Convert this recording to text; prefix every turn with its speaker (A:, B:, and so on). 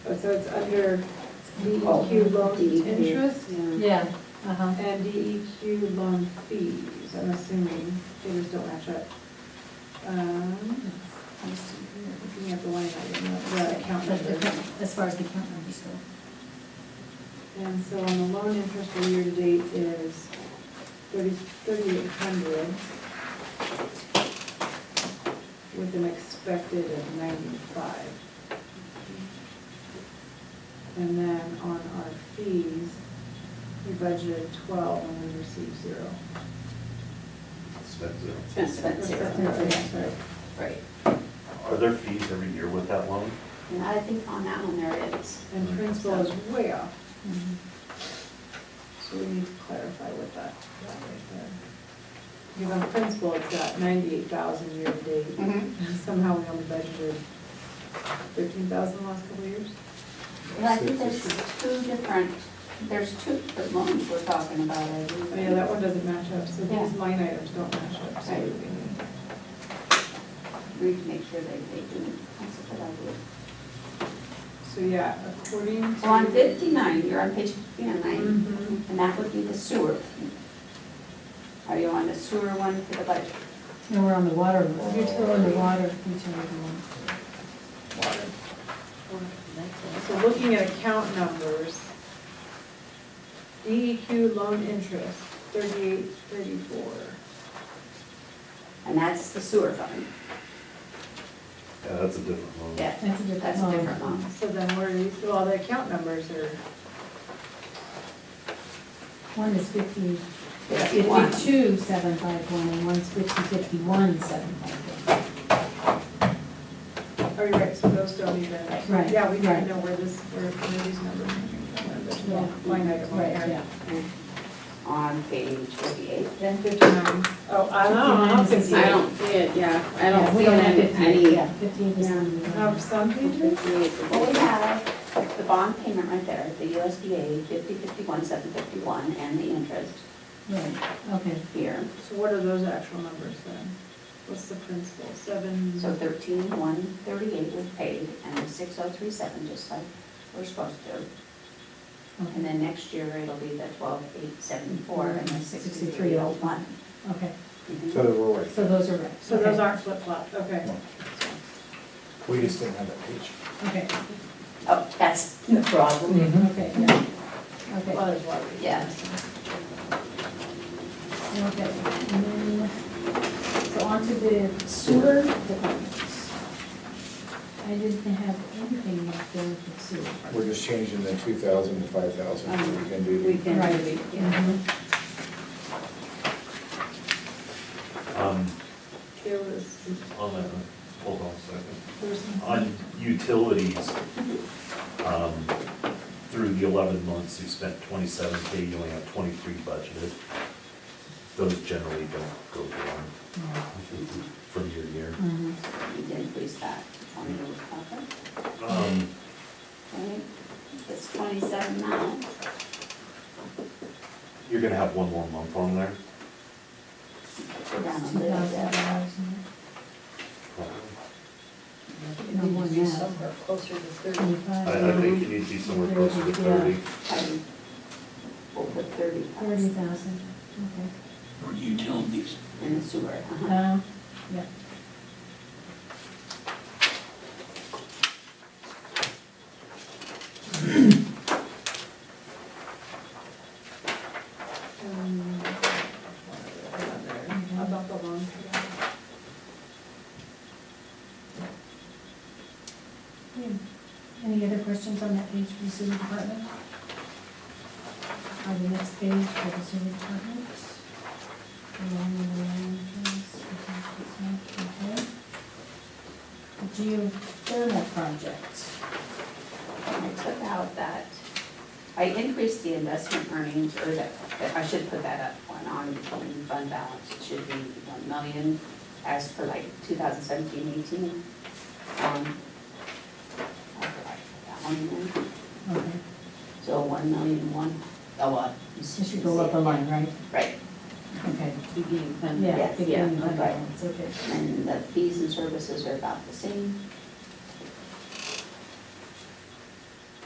A: Oh, So it's under
B: Oh,
A: DEQ loan
B: DEQ.
A: interest
C: Yeah, uh-huh.
A: and DEQ loan fees, I'm assuming, figures don't match up. Um, Looking at the line item, uh, the account
C: But the
A: number.
C: account- As far as the account numbers go.
A: And so on the loan interest for year-to-date is thirty, thirty-eight hundred with an expected of ninety-five. And then on our fees, we budgeted twelve and we received zero.
D: Spent zero.
B: Spent, spent zero.
A: That's right.
B: Right.
D: Are there fees every year with that loan?
B: And I think on that one there is.
A: And principal is way off,
B: Mm-hmm.
A: so we need to clarify what that, that right there. Because on principal, it's got ninety-eight thousand year-to-date.
B: Mhm.
A: Somehow we only budgeted thirteen thousand last couple of years.
B: But I think there's two different, there's two different loans we're talking about. I
A: Oh,
B: believe.
A: yeah, that one doesn't match up, so these
B: Yeah.
A: line items don't match up, so we
B: Right.
A: need.
B: We need to make sure that they do. That's a good idea.
A: So, yeah, according to.
B: So on fifty-nine, you're on page fifty-nine,
A: Mhm.
B: and that would be the sewer. Are you on the sewer one for the budget?
C: And we're on the water, we're on
A: Utility.
C: the water utility one.
A: So looking at account numbers, DEQ loan interest, thirty-eight, thirty-four.
B: And that's the sewer fund.
D: Yeah, that's a different loan.
B: Yeah,
C: That's a different
B: that's a
C: loan.
B: different loan.
A: So then where are these, so all the account numbers are,
C: One is fifty,
B: Fifty-one.
C: fifty-two, seven, five, one, and one's fifty, fifty-one, seven, five, one.
A: are you oh, right, so those don't even.
C: Right,
A: Yeah, we don't
C: right.
A: know where this, where where these numbers are.
C: Yeah.
A: Line item. on
C: Right,
A: here.
C: yeah.
B: On page fifty-eight.
A: Then fifty-nine. Oh, I don't know, I don't think so.
E: I don't see it, yeah, I
C: Yeah,
E: don't
C: we
E: see it in
C: fifty-eight,
E: any.
C: yeah, fifty-eight is on the.
A: Have Oh, some pages?
B: Well, we
E: Fifty-eight.
B: have the bond payment right there, the USDA fifty fifty-one, seven fifty-one, and the interest
C: Right, okay.
B: here.
A: So what are those actual numbers then? What's the principal, seven?
B: So thirteen, one thirty-eight was paid, and the six oh three seven, just like we're supposed to. And then next year, it'll be the twelve, eight, seven, four, and the sixty-three, oh, one.
C: Okay,
B: Mhm.
F: So we're like,
C: so those are right.
A: So those
C: okay,
A: aren't flip-flop, okay.
F: we just didn't have that page.
C: Okay,
B: Oh, that's the problem.
C: okay, yeah, okay.
A: Well, there's water.
B: Yeah.
C: Okay, and then, so on to the sewer departments. I didn't have anything left there for sewer.
F: We're just changing the two thousand to five thousand, we can do.
E: We can,
C: Right.
E: we- yeah.
C: Mhm.
D: Um,
A: There was,
D: on that, hold on a
A: there was
D: second.
A: some,
D: On utilities, um, through the eleven months, you spent twenty-seven K, you only have twenty-three budgeted. Those generally don't go down from year to year.
C: Mhm.
B: We can increase that to twenty, okay?
D: Um,
B: Right? It's twenty-seven now.
D: you're gonna have one more month on there,
B: Down a
C: Two thousand
B: little bit.
C: dollars in
D: probably.
C: No more than that.
E: closer to
C: there,
A: Um,
E: thirty.
C: twenty-five.
D: I, I think you need to be somewhere closer to thirty.
B: Thirty. We'll put thirty bucks
C: Thirty thousand, okay.
G: utilities.
B: in the sewer. uh-huh.
C: Uh, yeah.
A: um, about the loan.
C: Yeah. Any other questions on that page for the sewer department? On the next page for the sewer department? Along the line, just, okay, okay. The geothermal project.
B: I took out that, I increased the investment earnings, or that, that- I should put that up on, on the fund balance. It should be one million as for like 2017-18. Um, I forgot that one in.
C: Okay,
B: So one million one, oh, uh. you
C: this should go up a line, right?
B: Right,
C: Okay.
E: Beginning fund.
C: Yeah.
B: Yes,
C: beginning
B: yeah,
C: of
B: okay.
C: balance, okay.
B: and the fees and services are about the same.